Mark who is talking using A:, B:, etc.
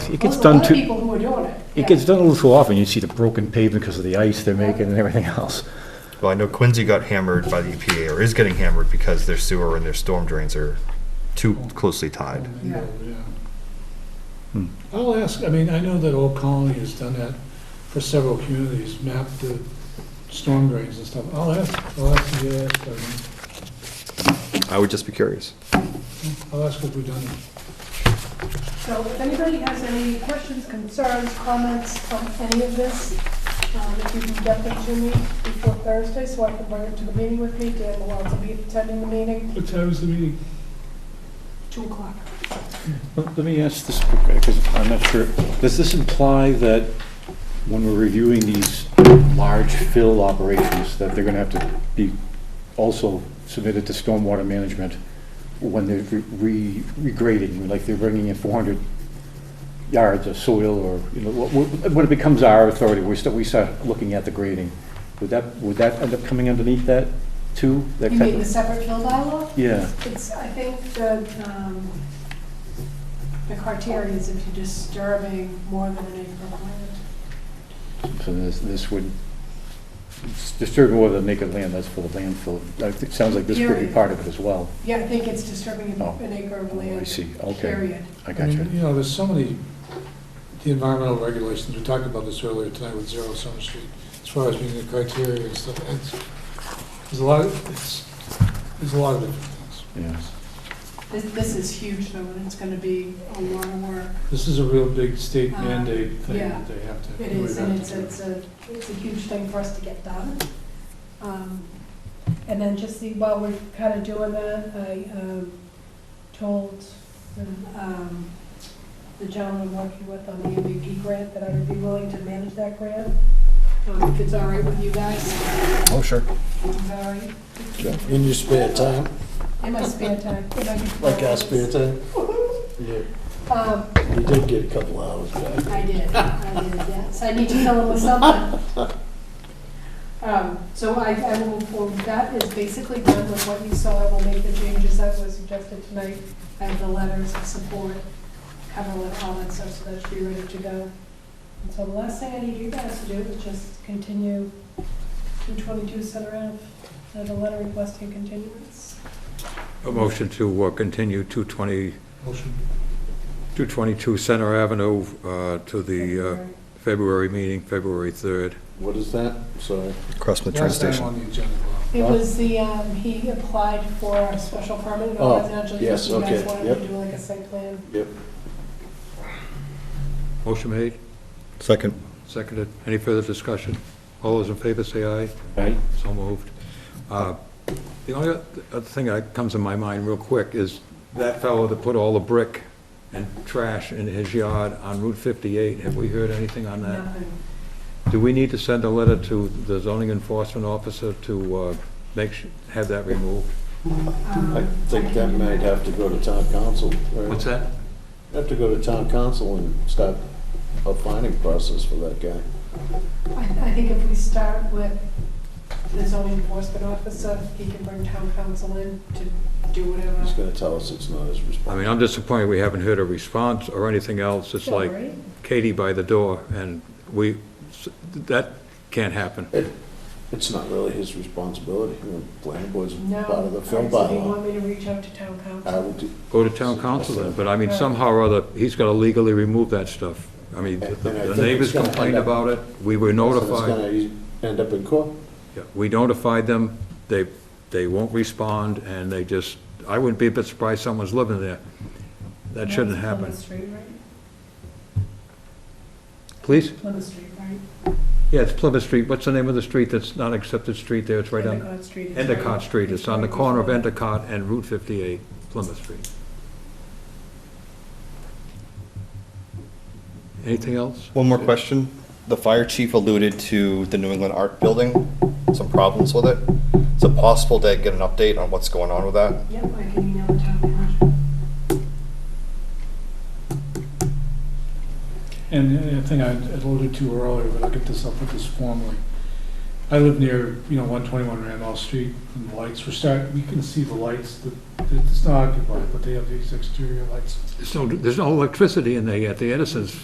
A: it
B: Well,
A: gets
B: there's a
A: done
B: lot of
A: too,
B: people who are doing it.
A: it gets done a little too often. You see the broken pavement because of the ice they're making and everything else.
C: Well, I know Quincy got hammered by the EPA, or is getting hammered because their sewer and their storm drains are too closely tied.
B: Yeah.
A: Hmm.
D: I'll ask, I mean, I know that Old Colony has done that for several communities, mapped the storm drains and stuff. I'll ask, I'll ask the, uh,
C: I would just be curious.
D: I'll ask if we've done it.
B: So if anybody has any questions, concerns, comments on any of this, um, if you can get them to me before Thursday, so I can bring it to the meeting with me, Dan Malone will be attending the meeting,
D: What time is the meeting?
B: two o'clock.
A: Let let me ask this, because I'm not sure, does this imply that when we're reviewing these large fill operations, that they're gonna have to be also submitted to stormwater management when they're re- re- regrading, like they're bringing in four hundred yards of soil or, you know, wh- wh- when it becomes our authority, we start, we start looking at the grading. Would that, would that end up coming underneath that too? That
B: You
A: type
B: mean the
A: of-
B: separate field dialogue?
A: Yeah,
B: It's, I think the, um, the criteria is if you're disturbing more than an acre of land.
A: so this, this would disturb more than naked land, that's for the landfill. I think- It sounds like this could be
B: Period.
A: part of it as well.
B: Yeah, I think it's disturbing
A: Oh.
B: an acre of land.
A: I see, okay,
B: Period.
A: I
D: I
A: got you.
D: mean, You know, there's so many, the environmental regulations, we talked about this earlier tonight with Zero Summer Street, as far as meeting the criteria and stuff, it's, there's a lot, of- it's, there's a lot of different things.
A: Yeah.
B: This, this is huge though, and it's gonna be a lot of work.
D: This is a real big state
B: Uh,
D: mandate thing
B: yeah.
D: that they have to.
B: It
D: we
B: is,
D: have
B: and
D: to
B: it's,
D: do.
B: it's a, it's a huge thing for us to get done. Um, And then just see, while we're kind of doing that, I um, told the, um, the gentleman I'm working with on the MVP grant that I would be willing to manage that grant. Um, If it's all right with you guys,
E: Oh, sure.
B: is that all right?
E: In your spare time,
B: In my spare time. if I could-
E: like our spare time? Yeah,
B: Um,
E: we did get a couple hours back.
B: I did, I did, yes, I need to fill it with something. Um, So I, I will move forward, that is basically done with what you saw, I will make the changes that were suggested tonight. I have the letters of support, cover letter, all that stuff, so that should be ready to go. And so the last thing I need you guys to do is just continue two twenty-two Center Ave, uh, the letter requesting continuance.
F: A motion to uh, continue 220,
D: Motion.
F: 222 Center Avenue uh, to the uh, February meeting, February 3rd.
E: What is that? Sorry.
C: Across from the train
D: Last time
C: station.
D: on the agenda, Bob.
B: It was the, um, he applied for a special permit in
E: Oh,
B: a residential
E: yes,
B: use, you guys
E: okay,
B: wanted to
E: yep.
B: do like a site plan.
E: Yep.
F: Motion made,
C: Second.
F: seconded. Any further discussion? All those in favor say aye.
A: Right?
F: So moved. Uh, The only other thing that comes to my mind real quick is that fellow that put all the brick and trash in his yard on Route 58. Have we heard anything on that?
B: Nothing.
F: Do we need to send a letter to the zoning enforcement officer to uh, make, su- have that removed?
B: Um,
E: I think that
B: can-
E: might have to go to town council. right?
F: What's that?
E: Have to go to town council and start a finding process for that guy.
B: I, I think if we start with the zoning enforcement officer, he can bring town council in to do
E: He's
B: whatever.
E: gonna tell us it's not his
F: I
E: responsibility.
F: mean, I'm disappointed we haven't heard a response or anything else. It's like
B: Sorry.
F: Katie by the door, and we, that can't happen.
E: It's not really his responsibility. The planning board's
B: No.
E: part of the film
B: Alright, So you
E: bylaw.
B: want me to reach out to town
E: I
F: Uh,
B: council?
E: will do,
F: Go to town council then, but I mean, somehow or other, he's got to legally remove that stuff. I mean, the-
E: And I
F: the
E: think
F: neighbors
E: it's gonna end
F: complained
E: up-
F: about it, we were
E: so it's
F: notified,
E: gonna end up in court.
F: Yeah, we notified them, they, they won't respond, and they just, I wouldn't be a bit surprised someone's living there. That shouldn't
B: That's
F: happen.
B: Plymouth Street, right?
F: Please?
B: Plymouth Street, right?
F: Yeah, it's Plymouth Street, what's the name of the street that's not accepted street there, it's right on
B: Endicott Street. is right-
F: Endicott Street, it's on the
B: right
F: corner of
B: before-
F: Endicott and Route 58, Plymouth Street. Anything else?
C: One more question. The fire chief alluded to the New England Art Building, some problems with it. Is it possible to get an update on what's going on with that?
B: Yep, I can email the town manager.
D: And the other thing I alluded to earlier, but I'll get this, I'll put this formally. I live near, you know, 121 Randolph Street, and the lights, we're start, we can see the lights, that it's not occupied, but they have these exterior lights.
F: There's no, there's no electricity in there yet, the Edison's